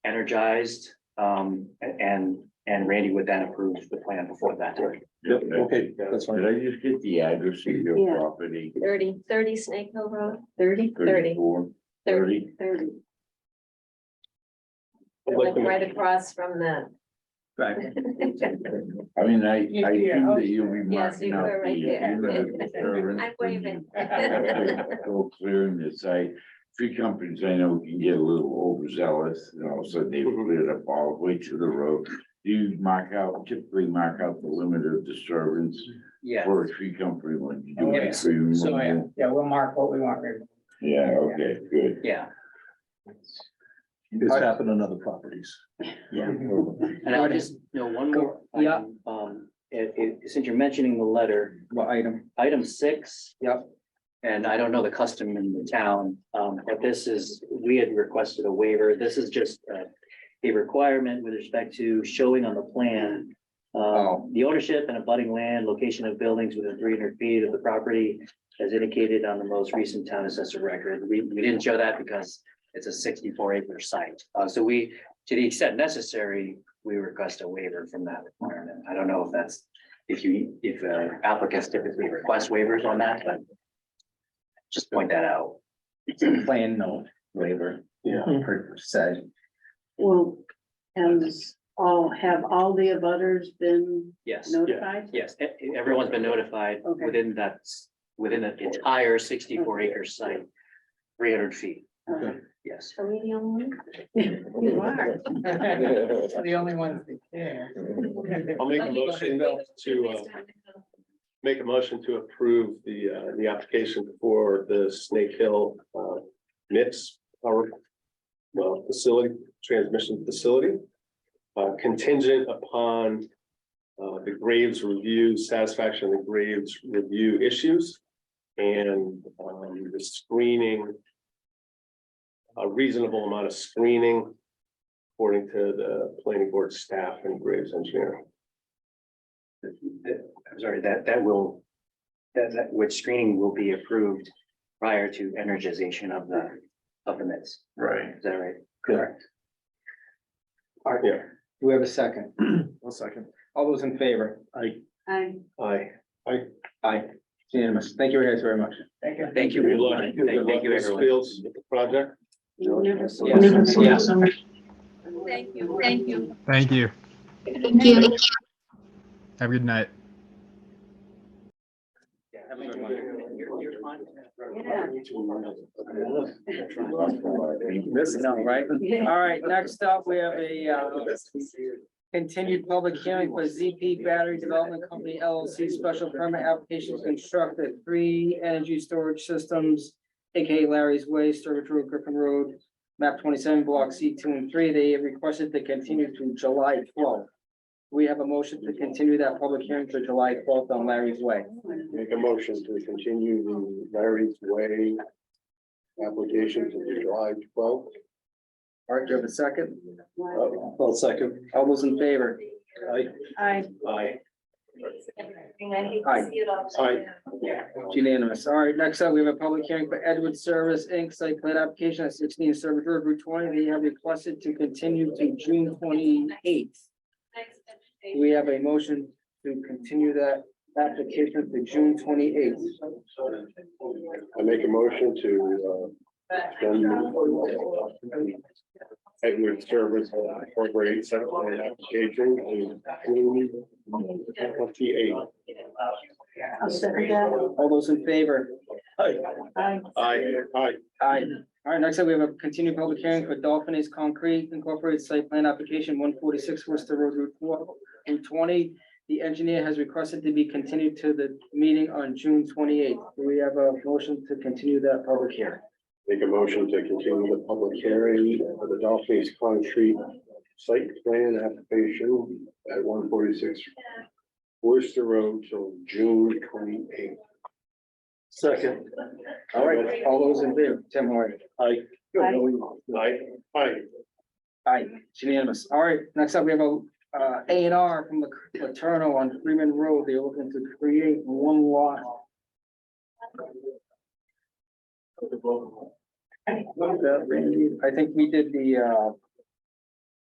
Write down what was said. energized, um, a- and, and Randy would then approve the plan before that. Yep, Okay, that's Did fine. I just get the address of your Yeah. property? Thirty, thirty Snake Hill Road, thirty, thirty, 34? thirty, thirty. I'd like Like to- right across from the. I mean, I, You- I yeah, think oh, that you'll be sure. Yes, you marking uh, out were right there. the. I'm waving. Go clearing the site. Tree companies I know can get a little overzealous and all of a sudden they Mm-hmm. Mhm. cleared up all the way to the road. Do you mark out, typically mark out the limit of disturbance Yeah, for a tree company when you do a Oh, Yes. tree so yeah, removal? yeah, we'll mark what we want. right? Yeah, okay, good. Yeah, It's happened on other properties. yeah. And I would just, know one more. Yeah. item, Um, it, it, since you're mentioning the letter, What item? item six. Yep. And I don't know the custom in the town, um, but this is, we had requested a waiver. This is just uh, a requirement with respect to showing on the plan. Oh. Um the ownership and abutting land, location of buildings within three hundred feet of the property as indicated on the most recent town assessor record. We, we didn't show that because it's a sixty-four acre site. Uh, so we, to the extent necessary, we request a waiver from that requirement. I don't know if that's if you, if uh, applicants typically request waivers on that, but just point that out. Plan no waiver. Yeah. Per se. Well, has all, have all the abutters been Yes, notified? yes, e- e- everyone's been notified Okay. within that, s- within an entire sixty-four acre site, three hundred feet, Uh, yes. Are we the only one? You are. The only ones that care. I'll make a motion to, uh, make a motion to approve the, uh, the application for the Snake Hill, uh, MIPS power, well, facility, transmission facility, uh, contingent upon, uh, the Graves review, satisfaction of the Graves review issues and, um, the screening, a reasonable amount of screening according to the planning board staff and Graves engineer. I'm sorry, that, that will, that, that, which screening will be approved prior to energization of the, of the mix. Right. Is that right? Correct. All right, Yeah. do we have a second? One second. All those in favor? Aye. I, Aye. Aye. It's Unanimous. Thank you guys very much. Thank you. Thank you. Good luck. Thank Good luck thank you, with everyone. Fields with the project. you never. Yes. Yes. Thank you, thank you. Thank you. Thank you. Have a good night. Have a good one. You're- you're fine. Missing out, right? All right, next up, we have a uh, continued public hearing for ZP Battery Development Company LLC special permit application to construct the three energy storage systems, AKA Larry's Way, Sturbridge Road, Griffin Road, map twenty-seven, block C two and three. They requested to continue to July twelfth. We have a motion to continue that public hearing to July twelfth on Larry's Way. Make a motion to continue the Larry's Way application to the July twelfth. All right, do you have a second? Well, Uh, second. All those in favor? Aye. I, I Aye. hate Aye. to see it all. Aye. It's Unanimous. All right, next up, we have a public hearing for Edward Service Inc. site plan application at sixteen Service Road Route twenty. They have requested to continue to June twenty-eighth. We have a motion to continue that application to June twenty-eighth. I make a motion to, uh, extend Edward Service Incorporated site plan application to June twenty-eight. I'll second that. All those in favor? Aye. I, Aye. Aye. Aye. All right, next up, we have a continued public hearing for Dolphin Ace Concrete Incorporated Site Plan Application one forty-six Worcester Road Route four and twenty. The engineer has requested to be continued to the meeting on June twenty-eighth. Do we have a motion to continue that public hearing? Make a motion to continue the public hearing for the Dolphins Concrete Site Plan Application at one forty-six Worcester Road till June twenty-eighth. Second. All right, all those in favor, Tim Moore. Aye. Aye. Aye. Aye. Aye, it's unanimous. All right, next up, we have a, uh, A and R from Laterno on Freeman Road. They're looking to create one lot. I think we did the, uh,